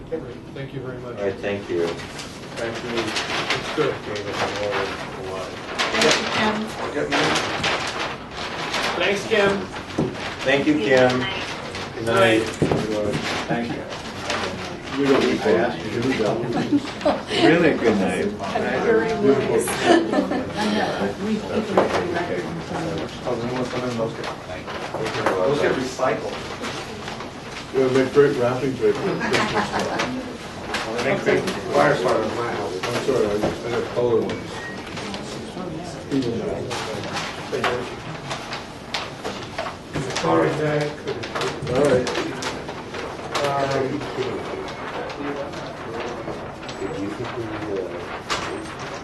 Great. Thank you very All much. right, thank you. Thank you. It's good. Gave us a lot, a lot. Thank you, Kim. Thanks, Kim. Thank you, Kim. Good night. Thank you. You don't need to ask, you do that. Really good night. Very nice. I know, we keep them pretty record. Those get recycled. It'll make great wrapping paper. I'm Thank you. Fire starter in my house. sorry, I just had colored ones. Sorry, Zach. All right. Um, uh,